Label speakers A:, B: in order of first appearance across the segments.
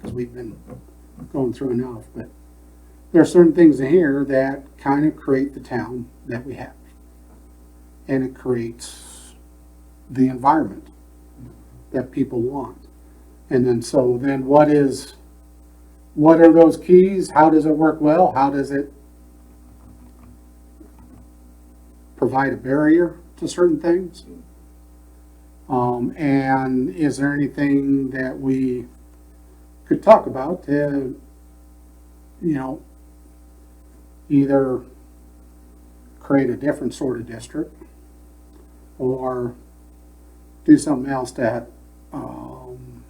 A: that we've been going through enough, but there are certain things in here that kind of create the town that we have. And it creates the environment that people want. And then, so then what is, what are those keys? How does it work well? How does it provide a barrier to certain things? Um, and is there anything that we could talk about to, you know, either create a different sort of district or do something else that, um,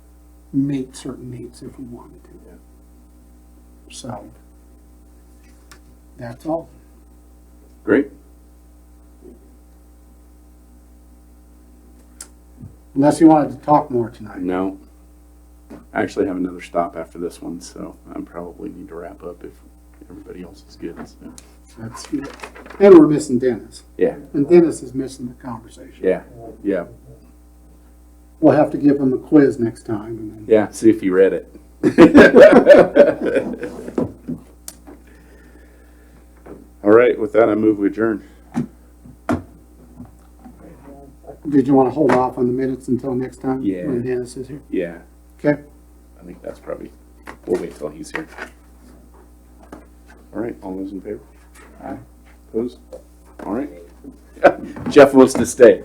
A: meet certain needs if we wanted
B: Yeah.
A: to. So, that's all.
B: Great.
A: Unless you wanted to talk more tonight.
B: No. I actually have another stop after this one, so I probably need to wrap up if everybody else is good. so.
A: That's, and we're missing Dennis.
B: Yeah,
A: And Dennis is missing the conversation.
B: yeah, yeah,
A: We'll have to give him a quiz next time and then.
B: yeah. See if you read it. All right, with that, I move we adjourn.
A: Did you want to hold off on the minutes until next time?
B: Yeah.
A: When Dennis is here?
B: Yeah,
A: Okay.
B: I think that's probably, we'll wait till he's here. All right, all those in favor? Aye. Opposed? All right. Jeff wants to stay.